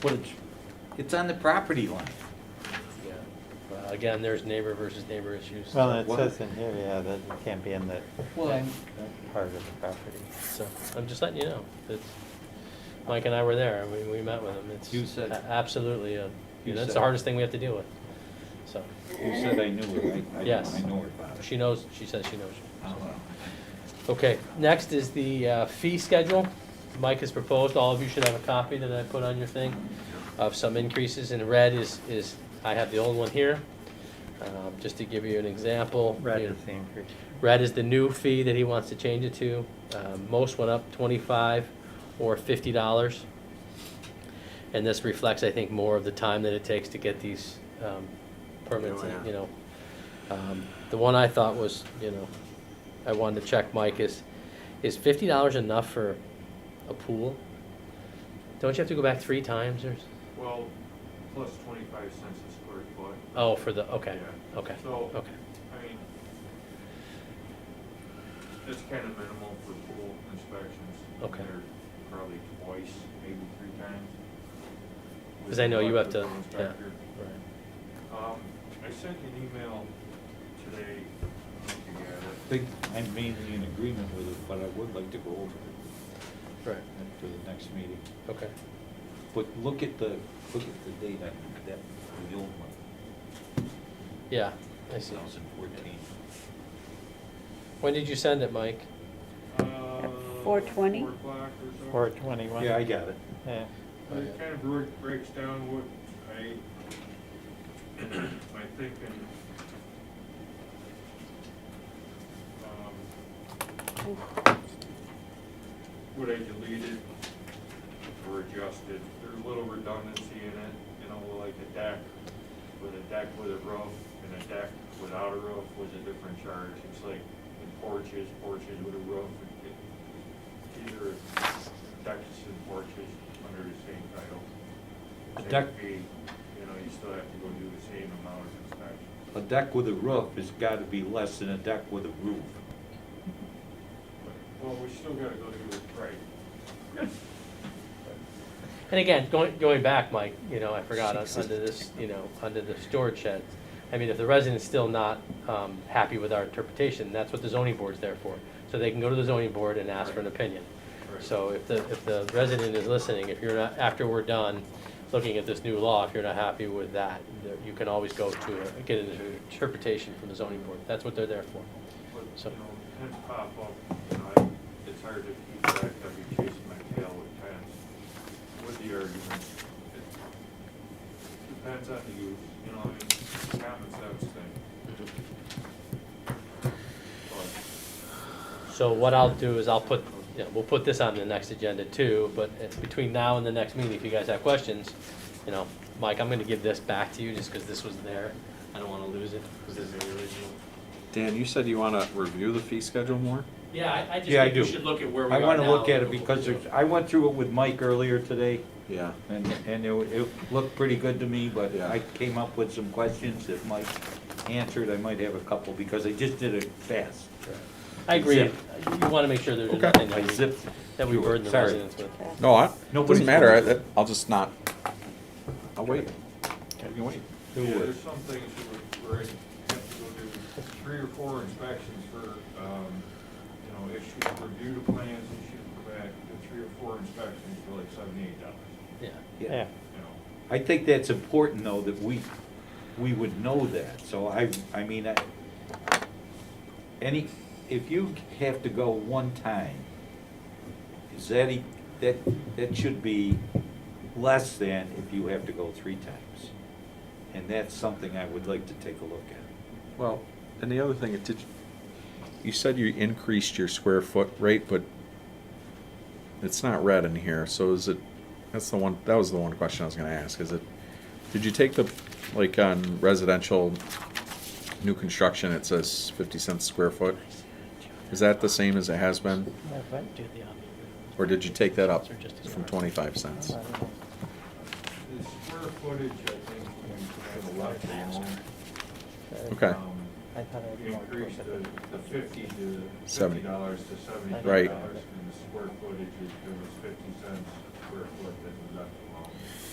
footage, it's on the property line. Yeah. Well, Again, there's neighbor versus neighbor issues. Well, it What? says in here, yeah, that it can't be in the Well, I'm, part of the property. So, I'm just letting you know, it's, Mike and I were there, we, we met with him, it's. You said- a- Absolutely, uh, You that's said- the hardest thing we have to deal with, so, you said I knew it, I, I Yes. I know her about it. she knows, she says she knows. you, Oh, so. well. Okay, next is the uh, fee schedule. Mike has proposed, all of you should have a copy that I put on your thing, of some increases. In red is, is, I have the old one here, Um, just to give you an example. Red you is know, the increase. Red is the new fee that he wants to change it to. Uh, Most went up twenty-five or fifty dollars. And this reflects, I think, more of the time that it takes to get these um, permits, and, you know. Um, The one I thought was, you know, I wanted to check, Mike, is, is fifty dollars enough for a pool? Don't you have to go back three times or, s- Well, plus twenty-five cents a square foot. oh, for the, okay, Yeah. okay, So- okay. I mean, it's kind of minimal for pool inspections. Okay. They're Probably twice, maybe three times. with Because I know you have to, electrical yeah. right. inspector. Um, I sent you an email today, I think you got I it. think I'm mainly in agreement with it, but I would like to go over it Right, at- for the next meeting. okay. But look at the, look at the date on that, the old one, Yeah, I two see. thousand fourteen. When did you send it, Mike? Uh, 4:20? Four o'clock or so. Four twenty-one. Yeah, I got it. Yeah. It kind of break- breaks down what I, my thinking. um, What um, I deleted or adjusted, there's a little redundancy in it, you know, like a deck with a deck with a roof and a deck without a roof was a different charge. It's like porches, porches with a roof, it- either decks and porches under the same title. A Same deck- fee, You know, you still have to go do the same amount of inspection. A deck with a roof has gotta be less than a deck with a roof. But- Well, we still gotta go do it right. And again, going, going back, Mike, you know, I forgot, un- under this, you know, under the storage shed. I mean, if the resident's still not, um, happy with our interpretation, that's what the zoning board's there for. So they can go to the zoning board and ask for an opinion. Right. So if the, if the resident is listening, if you're not, after we're done looking at this new law, if you're not happy with that, there- you can always go to, a- get an interpretation from the zoning board. That's what they're there for. But, So- you know, tents pop up, you know, I- it's hard to keep track, I'd be chasing my tail with tents, with the argument. It Depends on the use, you know, I mean, common sense thing. But, So what I'll do is I'll put, yeah, we'll put this on the next agenda too, but it's between now and the next meeting, if you guys have questions, you know, Mike, I'm gonna give this back to you just because this was there. I don't wanna lose it, because this is the original. Dan, you said you want to review the fee schedule more? Yeah, I, I just Yeah, I think we do. should look at where we I are wanna look now. at it because there's, I went through it with Mike earlier today. Yeah. And, and it, it looked pretty good to me, but Yeah. I came up with some questions that Mike answered, I might have a couple, because I just did it fast. I agree, Zip. you wanna make sure there's Okay. nothing I that we, zipped. that we through it. burden the Sorry. residents with. No, I, Nobody's- doesn't matter, I, that- I'll just not, I'll wait. We can wait. Who Yeah, would? there's some things you would, where you have to go do three or four inspections for, um, you know, issue, review the plans, issue the back, the three or four inspections for like seventy-eight dollars, Yeah, Yeah. you know. I think that's important, though, that we, we would know that, so I, I mean, I, any, if you have to go one time, is that, e- that, that should be less than if you have to go three times. And that's something I would like to take a look at. Well, and the other thing, it did, you said you increased your square foot rate, but it's not red in here, so is it, that's the one, that was the one question I was gonna ask, is it, did you take the, like, on residential new construction, it says fifty cents square foot? Is that the same as it has been? Or did you take that up from 25 cents? The square footage, I think, we have a lot Okay. I thought I had more Increase to the, it. the fifty to, fifty Seventy. dollars to seventy-five Right. dollars, and the square footage is, it was fifty cents per square foot that was up.